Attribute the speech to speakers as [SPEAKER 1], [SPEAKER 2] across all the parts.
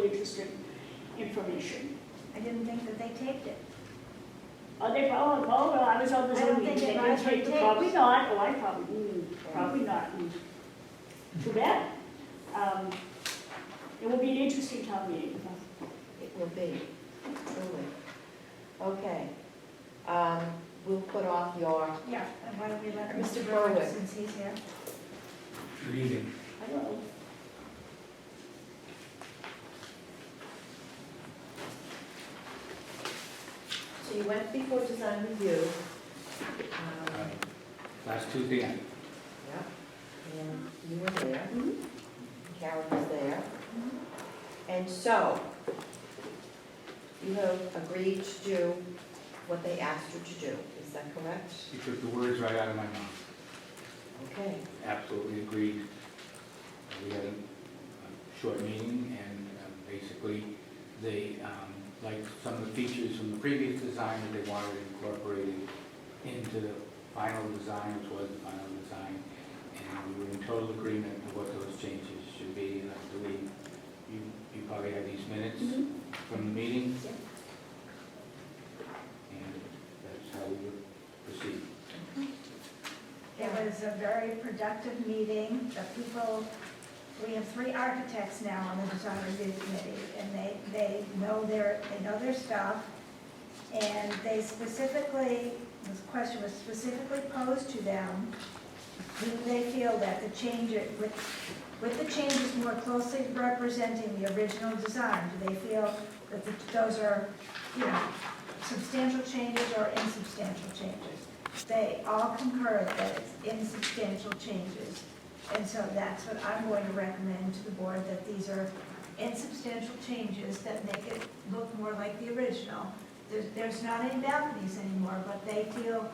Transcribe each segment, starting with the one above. [SPEAKER 1] consistent information.
[SPEAKER 2] I didn't think that they taped it.
[SPEAKER 1] Oh, they probably, oh, well, I was on the
[SPEAKER 2] I don't
[SPEAKER 1] Zoom
[SPEAKER 2] think
[SPEAKER 1] meeting, they
[SPEAKER 2] they
[SPEAKER 1] didn't
[SPEAKER 2] Hmm. buy
[SPEAKER 1] take,
[SPEAKER 2] tapes.
[SPEAKER 1] probably not, oh, I probably, mm, probably not. mm.
[SPEAKER 2] Hmm.
[SPEAKER 1] Too bad. Um, It will be an interesting town meeting.
[SPEAKER 3] It will be, truly. Okay, um, we'll put off your,
[SPEAKER 2] Yeah. And why don't we let
[SPEAKER 3] Mr.
[SPEAKER 2] Mr. Berwick,
[SPEAKER 3] Berwick.
[SPEAKER 2] since he's here?
[SPEAKER 4] Good evening.
[SPEAKER 1] I don't know.
[SPEAKER 3] so you went before design review. um,
[SPEAKER 4] Uh, Last Tuesday, night.
[SPEAKER 3] Yep, and you were there,
[SPEAKER 1] Mhm.
[SPEAKER 3] Karen was there. And so, you have agreed to do what they asked you to do, is that correct?
[SPEAKER 4] she took the words right out of my mouth.
[SPEAKER 3] Okay,
[SPEAKER 4] Absolutely agreed. We had a a short meeting, and um, basically, they, um, like some of the features from the previous design that they wanted incorporated into the final design, which was the final design, and we were in total agreement of what those changes should be, and I believe you, you probably have these minutes
[SPEAKER 1] Mhm.
[SPEAKER 4] from the meeting?
[SPEAKER 1] Yep.
[SPEAKER 4] And that's how we would proceed.
[SPEAKER 2] It was a very productive meeting. The people, we have three architects now on the design review committee, and they, they know their, they know their stuff. And they specifically, this question was specifically posed to them, do they feel that the change, with, with the changes more closely representing the original design, do they feel that the- those are, you know, substantial changes or insubstantial changes? They all concur that it's insubstantial changes. And so that's what I'm going to recommend to the board, that these are insubstantial changes that make it look more like the original. There's, there's not any balconies anymore, but they feel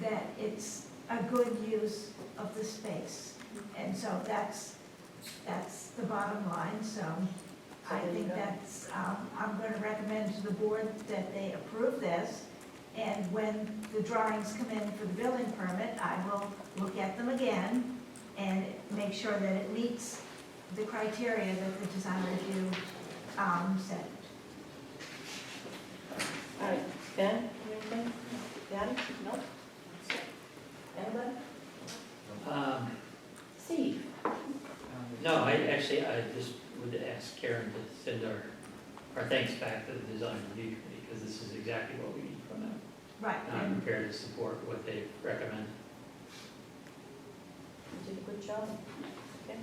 [SPEAKER 2] that it's a good use of the space. And so that's, that's the bottom line, so I
[SPEAKER 3] So there you
[SPEAKER 2] think
[SPEAKER 3] go.
[SPEAKER 2] that's, um, I'm going to recommend to the board that they approve this. And when the drawings come in for the building permit, I will look at them again and make sure that it meets the criteria that the design review um, said.
[SPEAKER 3] all right, Ben, you anything? Ben? No. Anybody?
[SPEAKER 5] Um,
[SPEAKER 3] Steve?
[SPEAKER 5] No, I actually, I just would ask Karen to send our, our thanks back to the design review committee, because this is exactly what we need from them.
[SPEAKER 2] Right,
[SPEAKER 5] And I'm
[SPEAKER 2] and
[SPEAKER 5] prepared to support what they recommend.
[SPEAKER 3] You did a good job. Okay.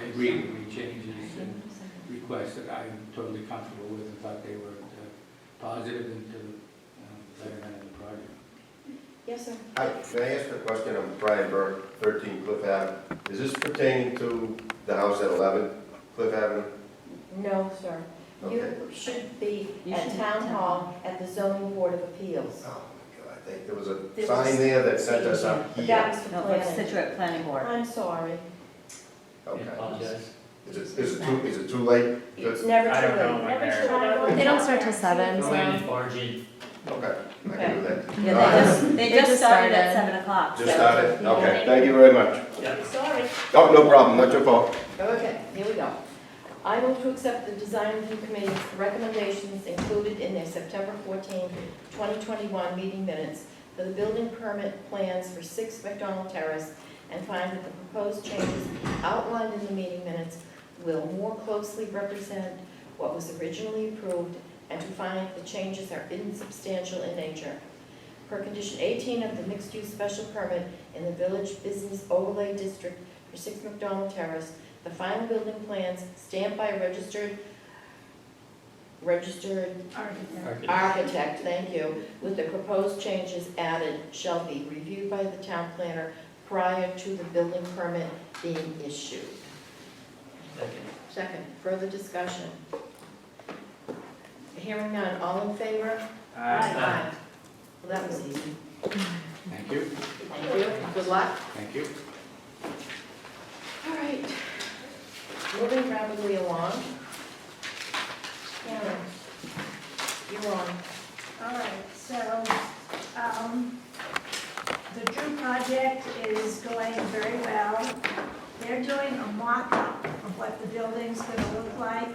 [SPEAKER 4] I agree with any changes and requests that I'm totally comfortable with, and thought they were uh, positive and to um, better end the project.
[SPEAKER 3] Yes, sir.
[SPEAKER 6] Hi, can I ask a question? I'm Brian Burke, 13 Cliff Ave. Is this pertaining to the house at 11 Cliff Avenue?
[SPEAKER 3] No, sir.
[SPEAKER 6] Okay.
[SPEAKER 3] You should be at town hall at the zoning board of appeals.
[SPEAKER 6] Oh, my God, I think there was a
[SPEAKER 7] This
[SPEAKER 6] sign
[SPEAKER 7] is-
[SPEAKER 6] there that sent us up
[SPEAKER 3] But
[SPEAKER 6] here.
[SPEAKER 3] that was the
[SPEAKER 7] No, it's
[SPEAKER 3] plan.
[SPEAKER 7] Situate Planning Board.
[SPEAKER 3] I'm sorry.
[SPEAKER 5] I
[SPEAKER 6] Okay.
[SPEAKER 5] apologize.
[SPEAKER 6] Is it, is it too, is it too late?
[SPEAKER 3] It's never
[SPEAKER 5] I don't know.
[SPEAKER 3] too
[SPEAKER 5] when they're-
[SPEAKER 7] They don't start till seven,
[SPEAKER 5] Go in and
[SPEAKER 7] so.
[SPEAKER 5] barge in.
[SPEAKER 6] Okay, I can do that.
[SPEAKER 7] Yeah, they just, they just started
[SPEAKER 3] started.
[SPEAKER 7] at seven o'clock.
[SPEAKER 6] Just
[SPEAKER 7] so-
[SPEAKER 6] started?
[SPEAKER 7] Yeah.
[SPEAKER 6] Okay, thank you very much.
[SPEAKER 5] Yeah.
[SPEAKER 3] late. Sorry.
[SPEAKER 6] Oh, no problem, not your fault.
[SPEAKER 3] Okay, here we go. I move to accept the design review committee's recommendations included in their September 14, 2021 meeting minutes for the building permit plans for 6 McDonald Terrace and find that the proposed changes outlined in the meeting minutes will more closely represent what was originally approved and to find the changes are insubstantial in nature. Per condition 18 of the mixed-use special permit in the Village Business Overlay District for 6 McDonald Terrace, the final building plans stamped by a registered, registered
[SPEAKER 2] architect.
[SPEAKER 5] Arch-
[SPEAKER 3] architect, thank you, with the proposed changes added shall be reviewed by the town planner prior to the building permit being issued.
[SPEAKER 5] Second.
[SPEAKER 3] Second, further discussion. Hearing none, all in favor?
[SPEAKER 5] Aye.
[SPEAKER 3] Well, that was easy.
[SPEAKER 4] Thank you,
[SPEAKER 3] Thank you, good luck.
[SPEAKER 4] thank you.
[SPEAKER 3] All right, moving rapidly along. Karen, you're on.
[SPEAKER 2] All right, so, um, the Drew project is going very well. They're doing a mock-up of what the building's gonna look like